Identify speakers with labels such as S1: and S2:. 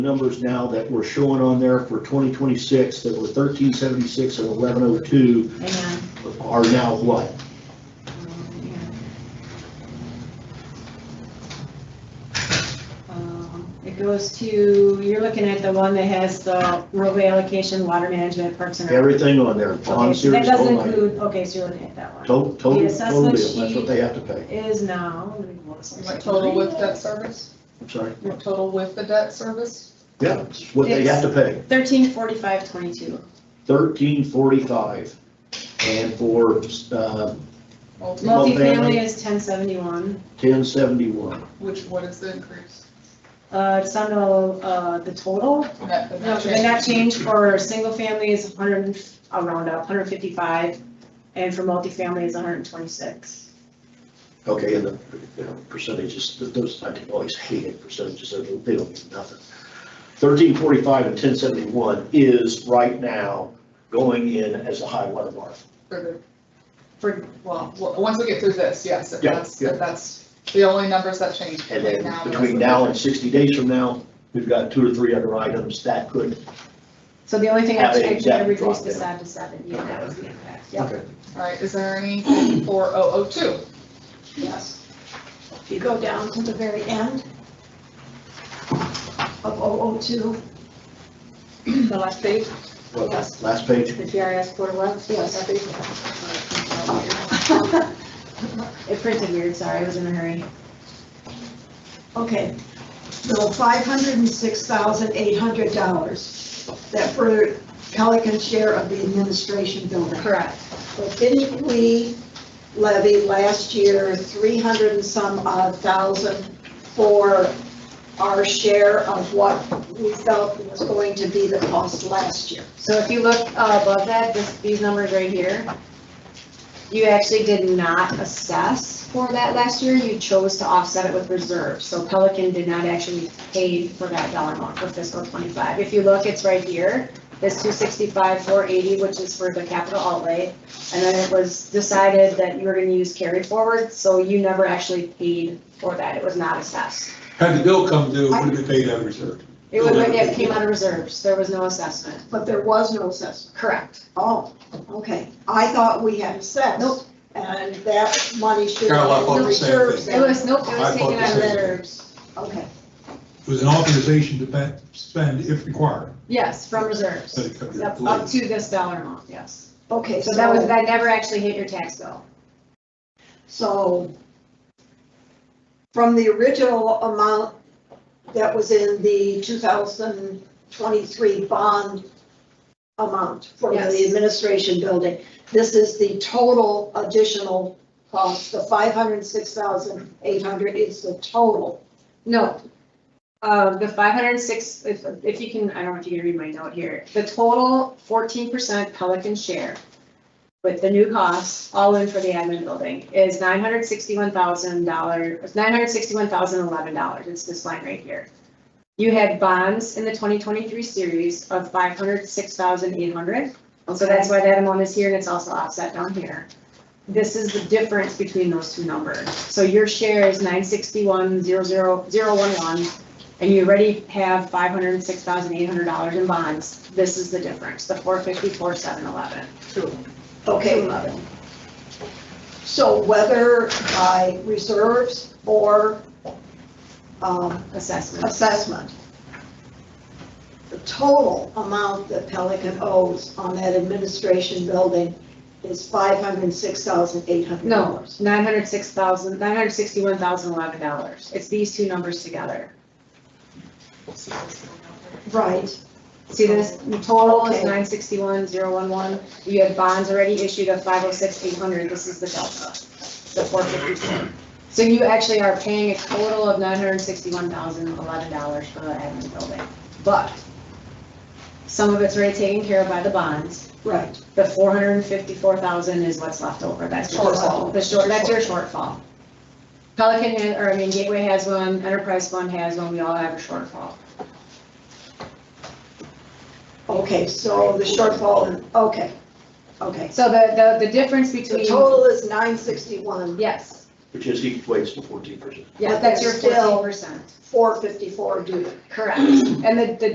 S1: numbers now that we're showing on there for 2026 that were 1376 and 1102
S2: Hang on.
S1: are now what?
S2: Um, It goes to, you're looking at the one that has the roadway allocation, water management, parks and. Rec.
S1: Everything on there,
S2: Okay,
S1: bond
S2: so
S1: series,
S2: That
S1: whole
S2: doesn't
S1: nine.
S2: include, okay, so you're looking at that one.
S1: Total, total, total
S2: The assessment
S1: bill, that's what
S2: sheet-
S1: they have to pay.
S2: It Is now. let me pull this up.
S3: What total with debt service?
S1: I'm sorry.
S3: What total with the debt service?
S1: Yeah, it's what they have to pay,
S2: Thirteen forty-five twenty-two.
S1: 1345. And for uh,
S3: Multi-
S1: Multifamily.
S2: Multifamily is ten seventy-one.
S1: 1071,
S3: Which, what is the increase?
S2: Uh, it's on the, uh, the total.
S3: Net- the
S2: No,
S3: net
S2: the net change for single family is hundred, I'll round up, hundred fifty-five, and for multifamily is hundred and twenty-six.
S1: okay, and the you know, percentages, those, I always hated percentages, they don't they don't mean nothing. 1345 and 1071 is right now going in as a high water mark.
S3: For the,
S2: For,
S3: well, well, once we get through this, yes, if
S1: Yeah,
S3: that's,
S1: yeah.
S3: if that's the only numbers that change.
S1: And
S3: between now
S1: then
S3: and the
S1: between
S3: rest
S1: now
S3: of
S1: and 60 days from now, we've got two or three other items that could.
S2: so the only thing I
S1: Have it
S2: checked, I
S1: exact
S2: reduced
S1: drop
S2: the
S1: down.
S2: side to seven, yeah, that was the impact, yeah,
S1: Okay.
S3: the- All right, is there any four oh oh two?
S4: Yes. If you go down to the very end of 002,
S3: The last page.
S1: Well, last page,
S4: the GIS Board of Works, yes, I think.
S2: it printed weird, sorry, I was in a hurry.
S4: Okay, so $506,800, that for Pelican share of the administration building.
S2: Correct.
S4: But didn't we levy last year 300 and some odd thousand for our share of what we felt was going to be the cost last year?
S2: So if you look uh, above that, this, these numbers right here, you actually did not assess for that last year. You chose to offset it with reserves. So Pelican did not actually pay for that dollar amount for fiscal twenty-five. If you look, it's right here, this two sixty-five, four eighty, which is for the capital outlay. And then it was decided that you were gonna use carry forward, so you never actually paid for that. It was not assessed.
S5: Had the bill come due, it would have been paid out of reserve.
S2: It was, it came out of reserves. There was no assessment.
S4: But there was no assessment.
S2: Correct.
S4: Oh, okay. I thought we had assessed.
S2: Nope.
S4: And that money should
S5: Carol, I
S4: have
S5: thought
S4: been
S5: the same thing.
S4: reserved.
S2: It was, nope, it
S5: I
S2: was
S5: thought
S2: taken
S5: the
S2: out of
S5: same thing.
S2: reserves.
S4: Okay,
S5: It was an authorization to pe- spend if required,
S2: Yes, from
S5: but
S2: reserves.
S5: it could be
S2: Yep,
S5: delayed.
S2: up to this dollar amount, yes.
S4: okay.
S2: So that was, that never actually hit your tax bill.
S4: So from the original amount that was in the 2023 bond amount for the
S2: Yes.
S4: administration building, this is the total additional cost. The 506,800 is the total.
S2: No. Uh, the five hundred and six, if, if you can, I don't know if you can read my note here, the total fourteen percent Pelican share with the new costs, all in for the admin building, is nine hundred sixty-one thousand dollars, nine hundred sixty-one thousand eleven dollars. It's this line right here. You had bonds in the twenty twenty-three series of five hundred six thousand eight hundred. So that's why that amount is here and it's also offset down here. This is the difference between those two numbers. So your share is nine sixty-one, zero, zero, zero, one, one, and you already have five hundred and six thousand eight hundred dollars in bonds. This is the difference, the four fifty-four, seven, eleven.
S4: Okay, so whether by reserves or um,
S2: Assessment.
S4: assessment. The total amount that Pelican owes on that administration building is five hundred and six thousand eight hundred
S2: No,
S4: dollars.
S2: nine hundred six thousand, nine hundred sixty-one thousand eleven dollars. It's these two numbers together.
S4: Right,
S2: See this, the total is
S4: Okay.
S2: nine sixty-one, zero, one, one. You have bonds already issued of five oh six, eight hundred. This is the delta, the four fifty-four. So you actually are paying a total of nine hundred sixty-one thousand, eleven dollars for the admin building. But some of it's already taken care of by the bonds.
S4: right.
S2: The four hundred and fifty-four thousand is what's left over. That's your
S3: Shortfall.
S2: shortfall. The short, that's your shortfall. Pelican, has- or I mean Gateway has one, Enterprise Fund has one. We all have a shortfall.
S4: Okay, so the shortfall, okay, okay.
S2: So the, the, the difference
S4: The
S2: between.
S4: total is nine sixty-one,
S2: Yes,
S1: which is equates to fourteen percent.
S2: Yeah, that's your
S4: Still-
S2: fourteen percent.
S4: four fifty-four due.
S2: Correct. And the, the